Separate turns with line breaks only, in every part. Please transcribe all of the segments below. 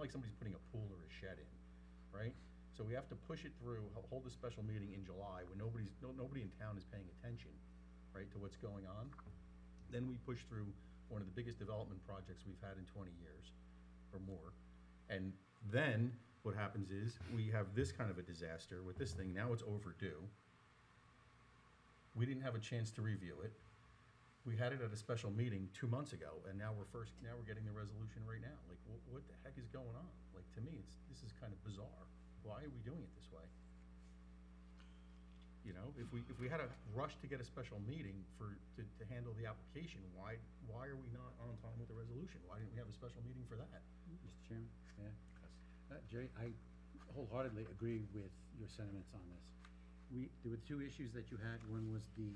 like somebody's putting a pool or a shed in, right? So we have to push it through, ho- hold a special meeting in July when nobody's, no, nobody in town is paying attention, right, to what's going on. Then we push through one of the biggest development projects we've had in twenty years or more. And then what happens is we have this kind of a disaster with this thing. Now it's overdue. We didn't have a chance to review it. We had it at a special meeting two months ago, and now we're first, now we're getting the resolution right now. Like, what, what the heck is going on? Like, to me, it's, this is kind of bizarre. Why are we doing it this way? You know, if we, if we had a rush to get a special meeting for, to, to handle the application, why, why are we not on time with the resolution? Why didn't we have a special meeting for that?
Mr. Chairman, yeah. Uh, Jerry, I wholeheartedly agree with your sentiments on this. We, there were two issues that you had, one was the,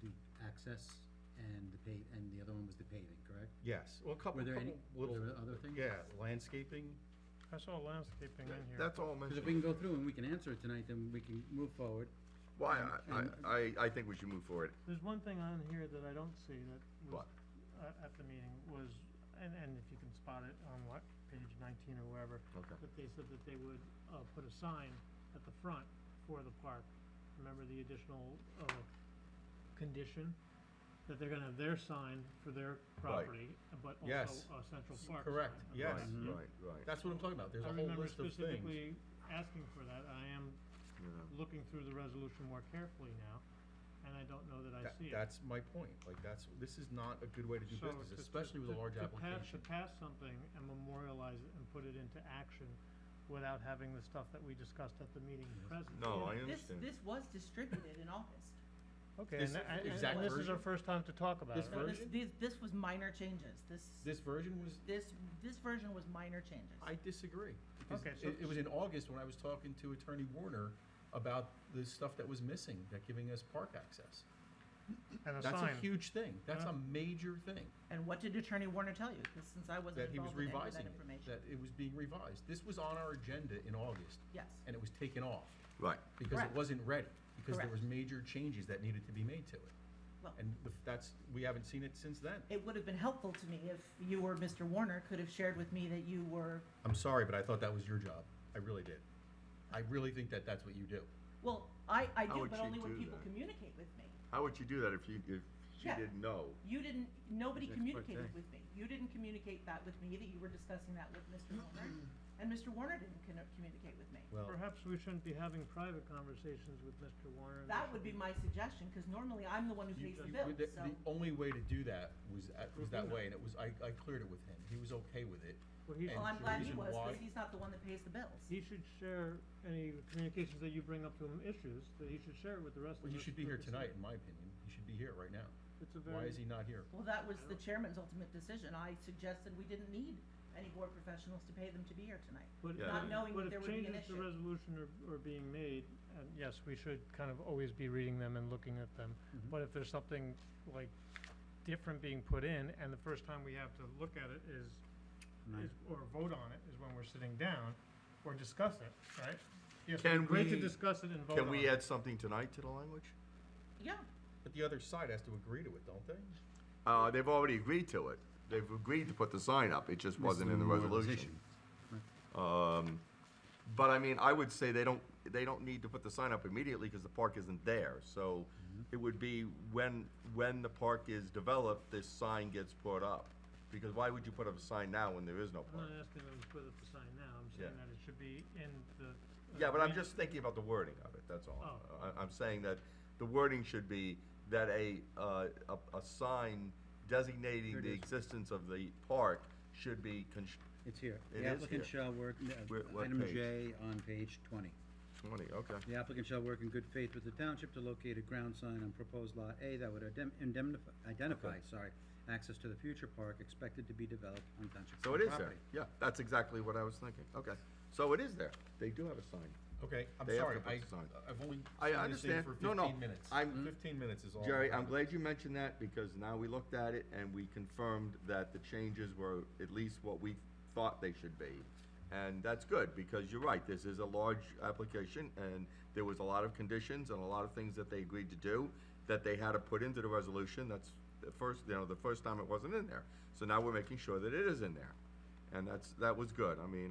the access and the pa, and the other one was the paving, correct?
Yes, well, a couple,
Were there any,
couple
were
little,
there other things?
yeah, landscaping,
I saw landscaping in here.
That's all
Because if
mentioned.
we can go through and we can answer it tonight, then we can move forward.
Why,
and-
I,
and-
I, I think we should move forward.
There's one thing on here that I don't see that was,
What?
uh, at the meeting was, and, and if you can spot it on what, page nineteen or wherever,
Okay.
that they said that they would, uh, put a sign at the front for the park. Remember the additional, uh, condition, that they're gonna have their sign for their property, but also
Yes.
a central park sign.
correct,
Okay.
yes.
Right, right, right.
that's what I'm talking about, there's
I
a whole
remember
list of things.
specifically asking for that, I am
you know.
looking through the resolution more carefully now, and I don't know that I
That-
see it.
That's my point, like, that's, this is not a good way to do
So
business,
to- to-
especially with a
to-
large
to pass-
application.
To pass something and memorialize it and put it into action without having the stuff that we discussed at the meeting present.
No, I
This,
understand.
this was distributed in August.
Okay,
This
and, and-
exact
and this is our
version?
first time to talk about it.
This
No, this,
version?
these, this was minor changes, this,
This version was,
this, this version was minor changes.
I disagree. because
Okay, so-
It, it was in August when I was talking to Attorney Warner about the stuff that was missing, that giving us park access.
And a
That's a
sign,
huge thing, that's
Huh?
a major thing,
And what did Attorney Warner tell you? Because since I wasn't
that he was
involved in any of that
revising
information.
it, that it was being revised. This was on our agenda in August,
Yes,
and it was taken off.
Right.
because it
Correct.
wasn't ready, because there was
Correct.
major changes that needed to be made to it.
well,
And the- that's, we haven't seen it since then.
it would have been helpful to me if you or Mr. Warner could have shared with me that you were,
I'm sorry, but I thought that was your job. I really did. I really think that that's what you do.
well, I, I
How
do,
would
but
she
only when
do
people
that?
communicate with me.
How would you do that if you, if she
Yeah.
didn't know?
You didn't, nobody
It's
communicated
expert
with me. You didn't communicate that with me, that you were discussing that with Mr. Warner, and Mr. Warner didn't conno- communicate with me.
Well,
perhaps we shouldn't be having private conversations with Mr. Warner. and
That
Mr.
would be
Lee.
my suggestion, because normally I'm the one who
you-
pays the
you-
bill,
the-
so.
The only way to do that was, at- was that
Review it.
way, and it was, I, I cleared it with him. He was okay with it.
Well, he
and
Well,
should,
I'm
the
glad he
reason
was,
why-
because he's not the one that pays the bills.
he should share any communications that you bring up to him, issues, that he should share it with the rest of us.
Well, you should be here
for consider-
tonight, in my opinion. You should be here right now.
It's a
Why
very,
is he not here?
Well, that was the chairman's ultimate decision. I suggested we didn't need any board professionals to pay them to be here tonight.
but,
Yeah.
Not knowing
but
that
if
there would be an
changes to
issue.
resolution are, are being made, and yes, we should kind of always be reading them and looking at them.
Mm-hmm.
Mhm.
But if there's something like different being put in, and the first time we have to look at it is,
Right.
is, or vote on it, is when we're sitting down, or discuss it, right? Yes,
Can
great to
we-
discuss it and vote on it.
Can we add something tonight to the language?
Yeah,
But the other side has to agree to it, don't they?
Uh, they've already agreed to it. They've agreed to put the sign up. It just wasn't in the resolution. Um, but I mean, I would say they don't, they don't need to put the sign up immediately because the park isn't there. So it would be when, when the park is developed, this sign gets put up. Because why would you put up a sign now when there is no
I'm
park?
not asking them to put up the sign now, I'm saying
Yeah.
that it should be in the. uh,
Yeah, but I'm
man-
just thinking about the wording of it, that's all.
Oh.
I, I'm saying that the wording should be that a, uh, a, a sign designating
Here it
the
is.
existence of the park should be const-
It's here.
It
The
is
applicant
here.
shall work,
Where-
uh,
what
item
page?
J on page twenty.
twenty, okay.
The applicant shall work in good faith with the township to locate a ground sign on proposed lot A that would idem- indemnify, identify, sorry, access to the future park expected to be developed on township
So it is there,
property.
yeah, that's exactly what I was thinking, okay. So it is there, they do have a sign.
Okay, I'm
They have
sorry,
to put
I,
this on.
I've only
I
seen this thing
understand.
for
No, no,
fifteen minutes.
I'm-
Fifteen minutes is all.
Jerry,
I've
I'm
got.
glad you mentioned that, because now we looked at it and we confirmed that the changes were at least what we thought they should be. And that's good, because you're right, this is a large application, and there was a lot of conditions and a lot of things that they agreed to do, that they had to put into the resolution, that's the first, you know, the first time it wasn't in there. So now we're making sure that it is in there, and that's, that was good, I mean,